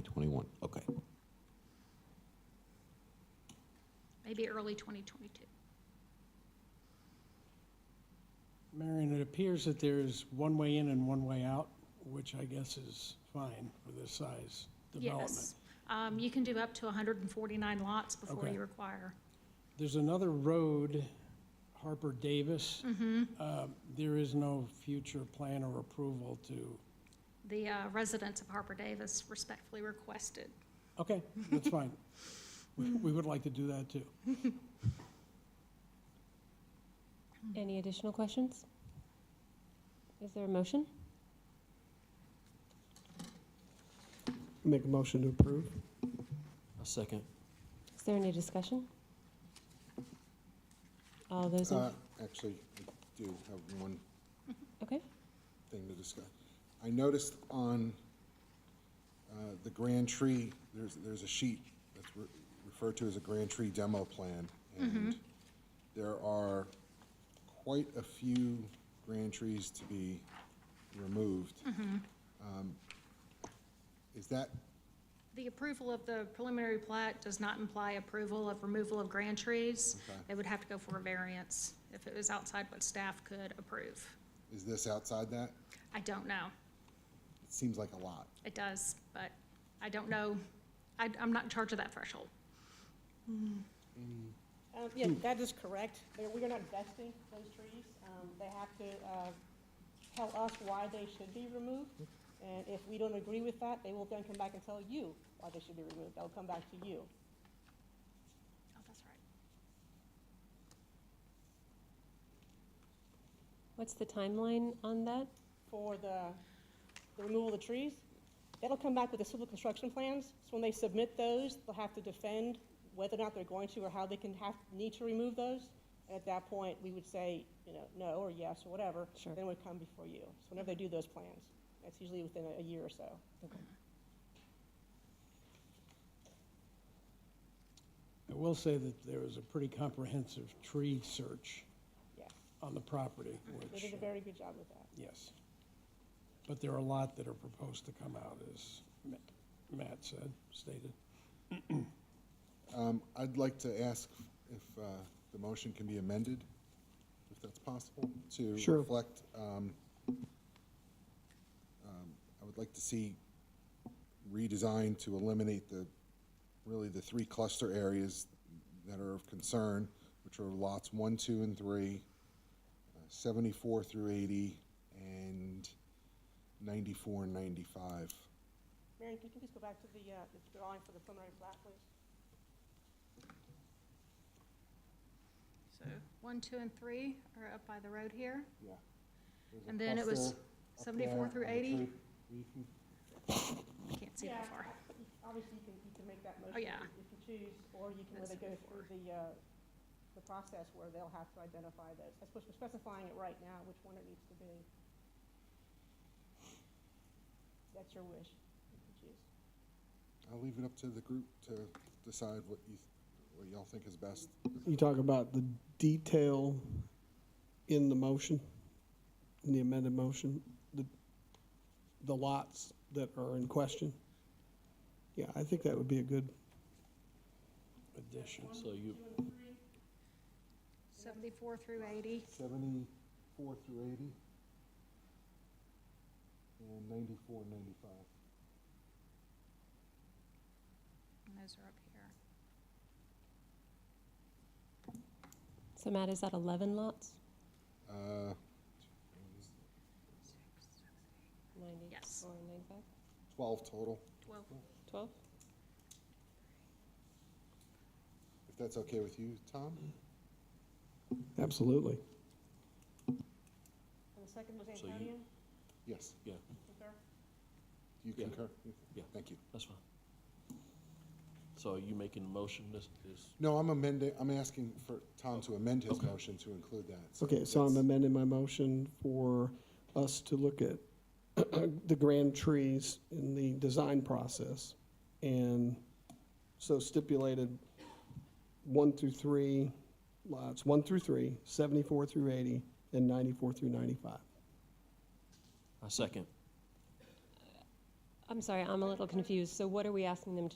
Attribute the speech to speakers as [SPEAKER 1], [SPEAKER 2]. [SPEAKER 1] 2021, okay.
[SPEAKER 2] maybe early 2022.
[SPEAKER 3] Marion, it appears that there's one way in and one way out, which I guess is fine for this size development.
[SPEAKER 2] Yes. Um, You can do up to 149 lots before
[SPEAKER 3] Okay.
[SPEAKER 2] you require.
[SPEAKER 3] There's another road, Harper Davis. Uh, There is no future plan or approval to,
[SPEAKER 2] The uh, residents of Harper Davis respectfully requested.
[SPEAKER 3] okay, that's fine. We we would like to do that too.
[SPEAKER 4] Any additional questions? Is there a motion?
[SPEAKER 5] Make a motion to approve.
[SPEAKER 6] A second.
[SPEAKER 4] Is there any discussion? All those in,
[SPEAKER 7] Uh, Actually, I do have one
[SPEAKER 4] okay,
[SPEAKER 7] thing to discuss. I noticed on uh, the Grand Tree, there's, there's a sheet that's re- referred to as a Grand Tree demo plan. And there are quite a few grand trees to be removed. Um, Is that,
[SPEAKER 2] The approval of the preliminary plat does not imply approval of removal of grand trees.
[SPEAKER 7] Okay.
[SPEAKER 2] They would have to go for a variance if it was outside what staff could approve.
[SPEAKER 7] is this outside that?
[SPEAKER 2] I don't know.
[SPEAKER 7] It seems like a lot.
[SPEAKER 2] It does, but I don't know. I, I'm not in charge of that threshold.
[SPEAKER 8] Um, yeah, that is correct. They- We are not vesting those trees. Um, they have to, uh, tell us why they should be removed. And if we don't agree with that, they will then come back and tell you why they should be removed. They'll come back to you.
[SPEAKER 2] Oh, that's right.
[SPEAKER 4] what's the timeline on that?
[SPEAKER 8] for the, the removal of the trees. That'll come back with the civil construction plans, so when they submit those, they'll have to defend whether or not they're going to or how they can have, need to remove those. And at that point, we would say, you know, no or yes or whatever.
[SPEAKER 4] Sure.
[SPEAKER 8] Then it would come before you. So whenever they do those plans, that's usually within a- a year or so.
[SPEAKER 3] I will say that there was a pretty comprehensive tree search
[SPEAKER 8] Yes.
[SPEAKER 3] on the property,
[SPEAKER 8] They
[SPEAKER 3] which,
[SPEAKER 8] did a very good job with that.
[SPEAKER 3] yes. But there are a lot that are proposed to come out, as Ma- Matt said, stated.
[SPEAKER 7] Um, I'd like to ask if, uh, the motion can be amended, if that's possible, to
[SPEAKER 5] Sure.
[SPEAKER 7] reflect, um, um, I would like to see redesigned to eliminate the, really the three cluster areas that are of concern, which are lots one, two, and three, uh, seventy-four through eighty, and ninety-four and ninety-five.
[SPEAKER 8] Marion, can you please go back to the, uh, the drawing for the preliminary plat, please?
[SPEAKER 2] So one, two, and three are up by the road here.
[SPEAKER 7] Yeah.
[SPEAKER 2] And then it was 74 through 80? Can't see
[SPEAKER 8] Yeah,
[SPEAKER 2] that far.
[SPEAKER 8] I- Obviously, you can, you can make that motion.
[SPEAKER 2] Oh, yeah.
[SPEAKER 8] If you choose, or you can,
[SPEAKER 2] That's
[SPEAKER 8] whether go through
[SPEAKER 2] before.
[SPEAKER 8] the, uh, the process where they'll have to identify those. I suppose we're specifying it right now, which one it needs to be. That's your wish, you can choose.
[SPEAKER 7] I'll leave it up to the group to decide what you, what y'all think is best.
[SPEAKER 5] You talk about the detail in the motion, in the amended motion, the, the lots that are in question. Yeah, I think that would be a good,
[SPEAKER 3] addition.
[SPEAKER 6] So you,
[SPEAKER 2] 74 through 80.
[SPEAKER 7] Seventy-four through eighty. And ninety-four, ninety-five.
[SPEAKER 2] And those are up here.
[SPEAKER 4] So Matt, is that 11 lots?
[SPEAKER 7] Uh,
[SPEAKER 2] Yes.
[SPEAKER 4] 94, 95,
[SPEAKER 7] twelve total,
[SPEAKER 2] 12.
[SPEAKER 4] 12?
[SPEAKER 7] if that's okay with you, Tom?
[SPEAKER 5] absolutely.
[SPEAKER 8] And the second was
[SPEAKER 6] So you-
[SPEAKER 8] Antonio,
[SPEAKER 7] Yes,
[SPEAKER 6] yeah,
[SPEAKER 8] concur?
[SPEAKER 7] you
[SPEAKER 6] Yeah.
[SPEAKER 7] concur?
[SPEAKER 6] Yeah.
[SPEAKER 7] Thank you.
[SPEAKER 6] that's fine. So are you making a motion, this is,
[SPEAKER 7] No, I'm amending, I'm asking for Tom to amend his
[SPEAKER 6] Okay.
[SPEAKER 7] motion to include that.
[SPEAKER 5] Okay, so I'm
[SPEAKER 7] that's-
[SPEAKER 5] amending my motion for us to look at the grand trees in the design process. And so stipulated one through three lots, one through three, 74 through 80, and 94 through 95.
[SPEAKER 6] a second?
[SPEAKER 4] I'm sorry, I'm a little confused. So what are we asking them to